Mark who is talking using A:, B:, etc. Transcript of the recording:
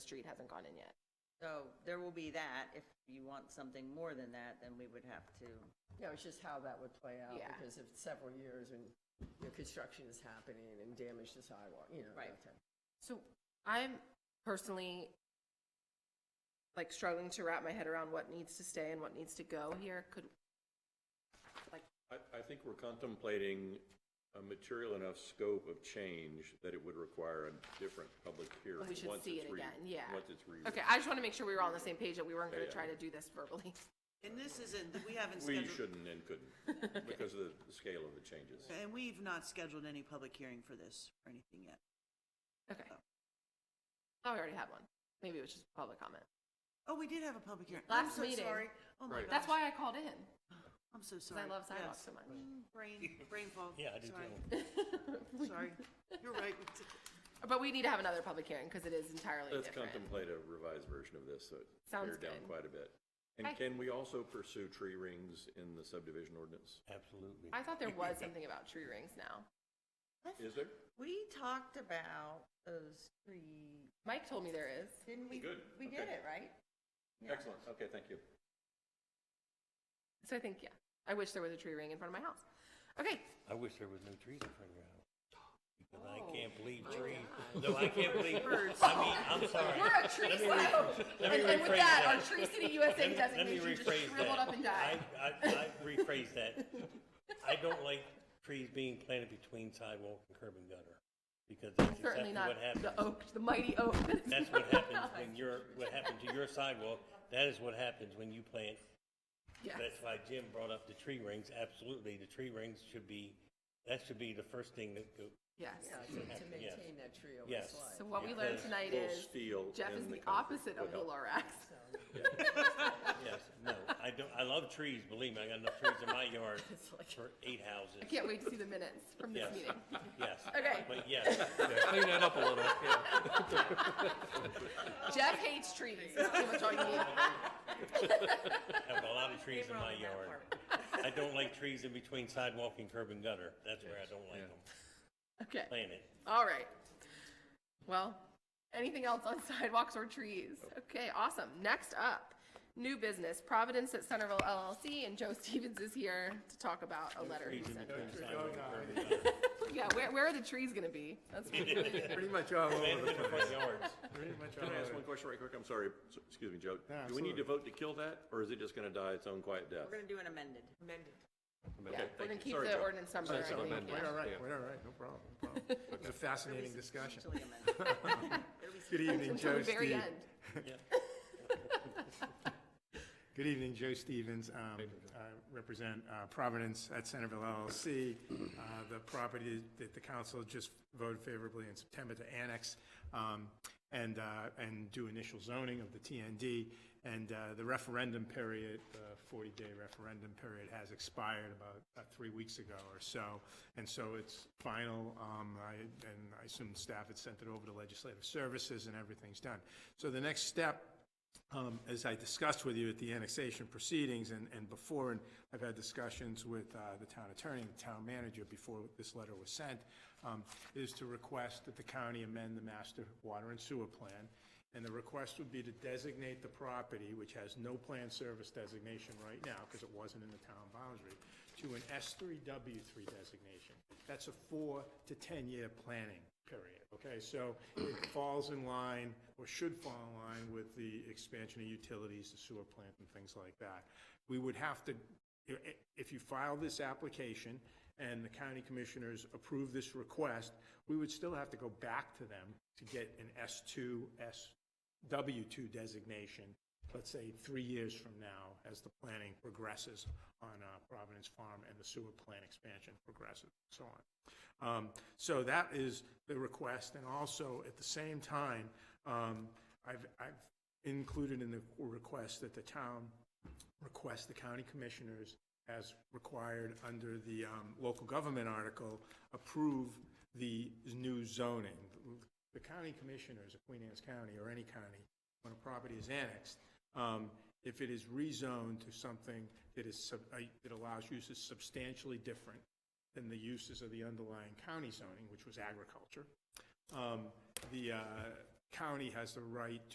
A: street hasn't gone in yet.
B: So there will be that. If you want something more than that, then we would have to,
C: Yeah, it's just how that would play out,
A: Yeah.
C: because if several years and, you know, construction is happening and damage to sidewalk, you know.
B: Right.
C: that type.
A: So I'm personally like struggling to wrap my head around what needs to stay and what needs to go here. Could,
D: I, I think we're contemplating a material enough scope of change that it would require a different public hearing.
A: we should
D: once
A: see
D: it's
A: it
D: re-
A: again, yeah.
D: Once it's re.
A: Okay, I just want to make sure we were on the same page, that we weren't going to
D: Yeah,
A: try
D: yeah.
A: to do this verbally.
E: And this isn't, we haven't
D: We
E: scheduled.
D: shouldn't and couldn't because of the the scale of the changes.
E: And we've not scheduled any public hearing for this or anything yet.
A: Okay. Oh, we already had one. Maybe it was just public comment.
E: Oh, we did have a public hearing. I'm
A: Last
E: so
A: meeting.
E: sorry. Oh
D: Right.
E: my gosh.
A: That's why I called in,
E: I'm so
A: because
E: sorry.
A: I love sidewalks
E: Yes.
A: so much.
E: Brain, brain fog.
F: Yeah, I do
E: Sorry.
F: too.
E: Sorry. You're right. We did-
A: But we need to have another public hearing because it is entirely
D: Let's
A: different.
D: contemplate a revised version of this, so it's
A: Sounds
D: pared down
A: good.
D: quite a bit. And
A: Okay.
D: can we also pursue tree rings in the subdivision ordinance?
F: Absolutely.
A: I thought there was something about tree rings now.
D: Is there?
B: we talked about those three,
A: Mike told me there is.
B: didn't we?
D: Good,
B: We did
D: okay.
B: it, right? Yeah.
D: Excellent, okay, thank you.
A: So I think, yeah, I wish there was a tree ring in front of my house. Okay,
F: I wish there was no trees in front of your house. Because I can't believe
C: my
F: trees.
C: God.
F: No, I can't believe,
B: Birds.
F: I mean, I'm sorry.
A: we're a tree
F: Let me
A: city.
F: rephr- let me
A: And and with
F: rephrase
A: that, our Tree City USA
F: Let me- let me
A: designation just
F: rephrase
A: shriveled
F: that.
A: up and died.
F: I, I, I rephrase that. I don't like trees being planted between sidewalk and curb and gutter. Because that's
A: Certainly
F: exactly
A: not
F: what happens.
A: the oak, the mighty oak. that is
F: That's
A: in
F: what
A: my
F: happens
A: house.
F: when you're, what happened to your sidewalk, that is what happens when you plant.
A: Yes.
F: That's why Jim brought up the tree rings, absolutely, the tree rings should be, that should be the first thing that go,
A: Yes.
C: Yeah, to- to
F: Yes.
C: maintain that tree over
F: Yes.
C: slide.
A: So what we learned
F: Because
A: tonight
D: we'll
A: is
D: steal
A: Jeff
D: in
A: is
D: the
A: the
D: comfort
A: opposite of
D: would
A: the
D: help.
A: Lorax.
F: yes, no, I don't, I love trees, believe me, I got enough trees in my yard for eight
A: I
F: houses,
A: can't wait to see the minutes from this
F: Yes.
A: meeting.
F: yes.
A: Okay.
F: But yes,
G: Clean that up a little, yeah.
A: Jeff hates trees. That's pretty much all you need.
F: I have a lot of trees in my yard. I don't like trees in between sidewalk and curb and gutter, that's where I don't like them,
A: Okay.
F: plant it.
A: All right. Well, anything else on sidewalks or trees? Okay, awesome. Next up, new business, Providence at Centerville LLC, and Joe Stevens is here to talk about a letter he
F: Trees in
A: sent.
F: between sidewalk and curb and gutter.
A: Yeah, where, where are the trees gonna be? That's,
G: Pretty much all
F: Plant
G: over
F: it in
G: the
F: the
G: place.
F: front yards.
G: Pretty much all
D: Can I ask
G: over.
D: one question right quick? I'm sorry, S- excuse me, Joe.
G: Yeah,
D: Do we need to vote to kill that, or is it just gonna die its own quiet death?
B: We're gonna do an amended.
A: yeah, we're
D: Okay, thank
A: gonna
D: you.
A: keep
D: Sorry,
A: the
D: Joe.
A: ordinance number, I
D: Sorry, sorry,
A: think,
D: man.
A: yeah.
G: We're all right, we're all right, no problem, no problem. It was a fascinating discussion.
B: Substantially amended. It'll be
G: Good evening,
A: Until
G: Joe
A: the very
G: Steve.
A: end.
G: Good evening, Joe Stevens. Um, I represent uh, Providence at Centerville LLC, uh, the property that the council just voted favorably in September to annex um, and, uh, and do initial zoning of the TND. And uh, the referendum period, the 40-day referendum period has expired about uh, three weeks ago or so. And so it's final, um, I- and I assume staff had sent it over to legislative services and everything's done. So the next step um, As I discussed with you at the annexation proceedings and, and before, and I've had discussions with uh, the town attorney, and the town manager before this letter was sent, um, is to request that the county amend the master water and sewer plan. And the request would be to designate the property, which has no plan service designation right now because it wasn't in the town boundary, to an S3W3 designation. That's a four to 10-year planning period, okay? So it falls in line, or should fall in line with the expansion of utilities, the sewer plant and things like that. We would have to, i- i- if you file this application and the county commissioners approve this request, we would still have to go back to them to get an S2, SW2 designation, let's say, three years from now, as the planning progresses on uh, Providence Farm and the sewer plant expansion progresses, and so on. Um, So that is the request, and also, at the same time, um, I've, I've included in the request that the town request the county commissioners, as required under the um, local government article, approve the new zoning. The county commissioners of Queen Anne's County, or any county, when a property is annexed, um, if it is rezoned to something that is, sub- uh, that allows uses substantially different than the uses of the underlying county zoning, which was agriculture, um, the uh, county has the right